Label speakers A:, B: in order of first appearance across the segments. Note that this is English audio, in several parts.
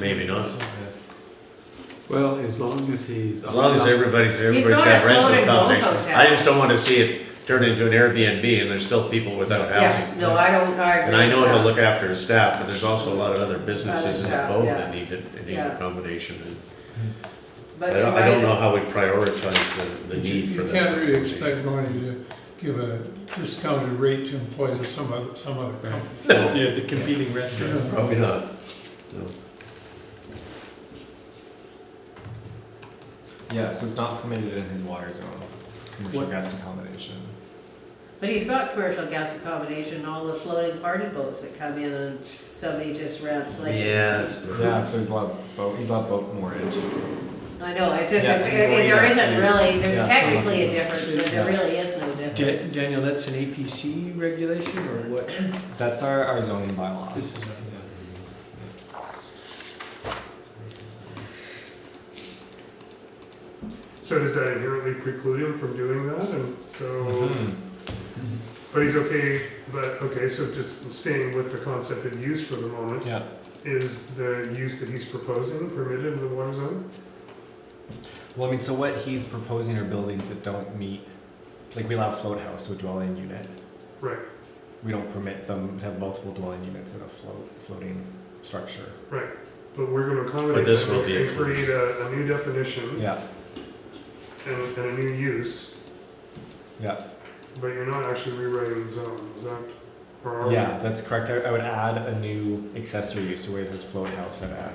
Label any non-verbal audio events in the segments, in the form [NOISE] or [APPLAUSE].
A: Maybe not.
B: Well, as long as he's.
A: As long as everybody's, everybody's
C: got
A: got
C: a
A: rental
C: floating boat
A: accommodations.
C: hotel.
A: I just don't wanna see it turn into an Airbnb and there's still people without
C: Yes,
A: housing.
C: no, I don't, I agree.
A: And I know
C: with
A: he'll
C: that.
A: look after his staff, but there's also a lot of other businesses in the
C: Yeah,
A: boat
C: yeah.
A: that need, that need
C: Yeah.
A: accommodation. and
C: But
A: I don't, I don't
C: you're
A: know
C: right.
A: how we prioritize the, the need for
D: You
A: that.
D: can't really expect Marty to give a discounted rate to employees of some other, some other company.
A: No,
B: Yeah, the competing restaurant.
A: Probably not. No.
E: Yeah, so it's not permitted in his water zone, commercial
B: What-
E: guest accommodation.
C: But he's got commercial gas accommodation, all the floating party boats that come in and somebody just rents like.
A: Yeah, it's-
E: Yeah, so he's allowed boat, he's allowed boat moorage.
C: I know, it's just,
E: Yeah,
C: it's-
E: and
C: there
E: going
C: there
E: up
C: isn't
E: is-
C: really, there's
E: yeah.
C: technically a difference, but there
E: Yeah.
C: really is no difference.
B: Daniel, that's an APC regulation or what?
E: That's our, our zoning bylaw.
B: This is,
F: So does that inherently preclude him from doing that? And so,
E: Mhm.
F: but he's okay, but, okay, so just staying with the concept of use for the moment,
E: Yeah,
F: is the use that he's proposing permitted in the water zone?
E: well, I mean, so what he's proposing are buildings that don't meet, like we allow float house with dwelling unit.
F: Right,
E: We don't permit them to have multiple dwelling units in a float, floating structure.
F: but we're gonna
A: But
F: accommodate
A: this
F: that
A: will be
F: and create a, a new definition
E: Yeah,
F: and, and a new use,
E: yeah,
F: but you're not actually rewriting the zone, is that? or are we?
E: yeah, that's correct. I, I would add a new accessory use to where this float house, I'd add,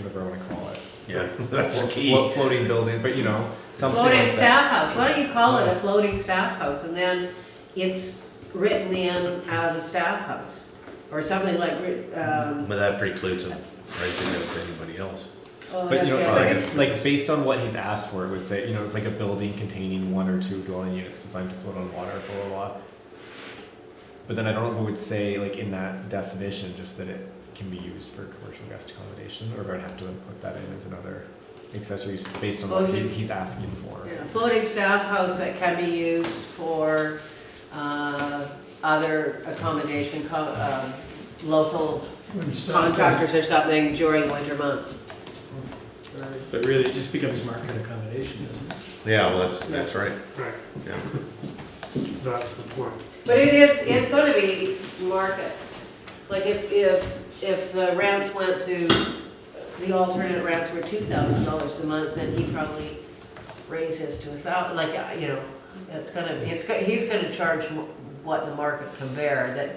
E: whatever I wanna call it.
A: yeah, [LAUGHS] that's
E: Flo-
A: key.
E: flo- Floating building, but you know, something like that.
C: Floating staff house, why don't you call it a floating staff house, and then it's written in as a staff house, or something like, um.
A: But that precludes him renting it to anybody else.
C: oh,
E: But you know,
C: yeah.
E: it's
A: I
E: like,
A: guess-
E: it's like based on what he's asked for, it would say, you know, it's like a building containing one or two dwelling units designed to float on water, blah, blah, blah. But then I don't know if it would say, like, in that definition, just that it can be used for commercial guest accommodation, or if I'd have to put that in as another accessory use based on what he,
C: Closing.
E: he's asking for.
C: Yeah, Floating staff house that can be used for uh, other accommodation, co- uh, local
D: When staff-
C: contractors or something during winter months.
B: but really, it just becomes market accommodation, doesn't it?
A: Yeah, well, that's, that's right.
F: Right,
A: Yeah.
F: that's the point.
C: But it is, it's gonna be market. Like if, if, if the rents went to, the alternate rents were two thousand dollars a month, then he probably raises to a thou, like, uh, you know, it's gonna, it's, go- he's gonna charge wh- what the market can bear, that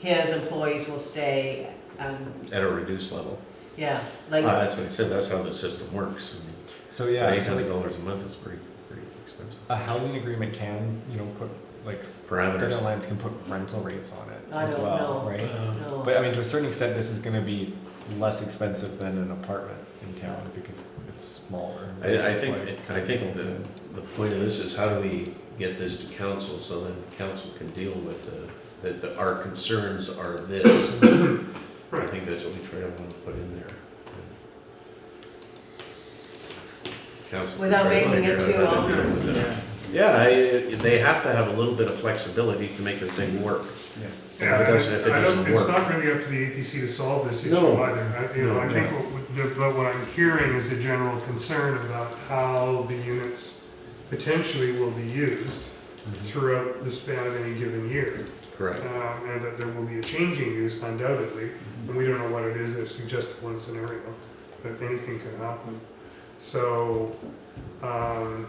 C: his employees will stay, um,
A: At a reduced level.
C: yeah,
A: Uh,
C: like,
A: That's what I said, that's how the system works. I mean,
E: So, yeah,
A: Eight
E: so
A: hundred
E: like,
A: dollars a month is pretty, pretty expensive.
E: a housing agreement can, you know, put, like, different
A: Parameters.
E: lines can put rental rates on it
C: I
E: as
C: don't
E: well,
C: know.
E: right?
A: Um,
C: no.
E: But I mean, to a certain extent, this is gonna be less expensive than an apartment in town because it's smaller.
A: I, I
E: It's
A: think,
E: like
A: I
E: kinda
A: think
E: built
A: the,
E: in.
A: the point of this is how do we get this to council so then council can deal with the, that the, our concerns are this. I think that's what we try to want to put in there. Council can
C: Without
A: try to
C: making
A: figure
C: it
A: out
C: too
A: how to deal
C: onerous.
A: with it. Yeah, I, they have to have a little bit of flexibility to make the thing work. And
F: Yeah,
A: if it
F: I-
A: doesn't, if it
F: I
A: doesn't
F: don't, it's
A: work.
F: not really up to the APC to solve this issue
A: No.
F: either. I- You know, I think, what the- but what I'm hearing is a general concern about how the units potentially will be used
A: Mm-hmm.
F: throughout the span of any given year.
A: Correct.
F: Um, And that there will be a changing use undoubtedly, and we don't know what it is, they've suggested one scenario, but anything can happen. So, um,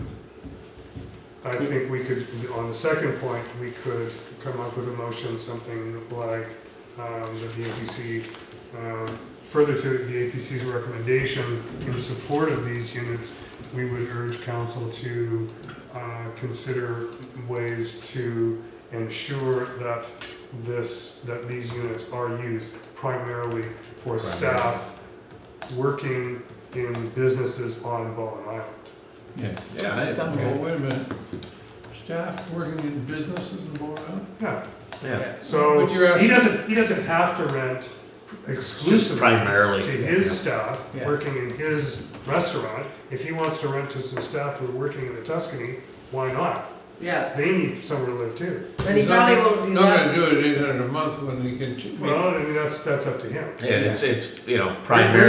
F: I think we could, on the second point, we could come up with a motion, something like, um, that the APC, um, further to the APC's recommendation in support of these units, we would urge council to, uh, consider ways to ensure that this, that these units are used primarily for staff working in businesses on Bowen Island.
D: Yes.
A: Yeah, I-
D: Well, wait a minute. Staff working in businesses and going out?
F: Yeah,
A: Yeah,
F: so
D: But you're
F: he
D: asking-
F: doesn't, he doesn't have to rent
A: just
F: exclusively
A: primarily.
F: to his staff,
B: Yeah.
F: working in his restaurant. If he wants to rent to some staff who are working in the Tuscany, why not?
C: yeah.
F: They need somewhere to live too.
C: But he probably won't do
D: Not gonna
C: that.
D: do it eight hundred a month when they can ch- make
F: Well, I mean, that's, that's up to him.
A: Yeah, it's, it's, you know,
F: We're- we're
A: primarily.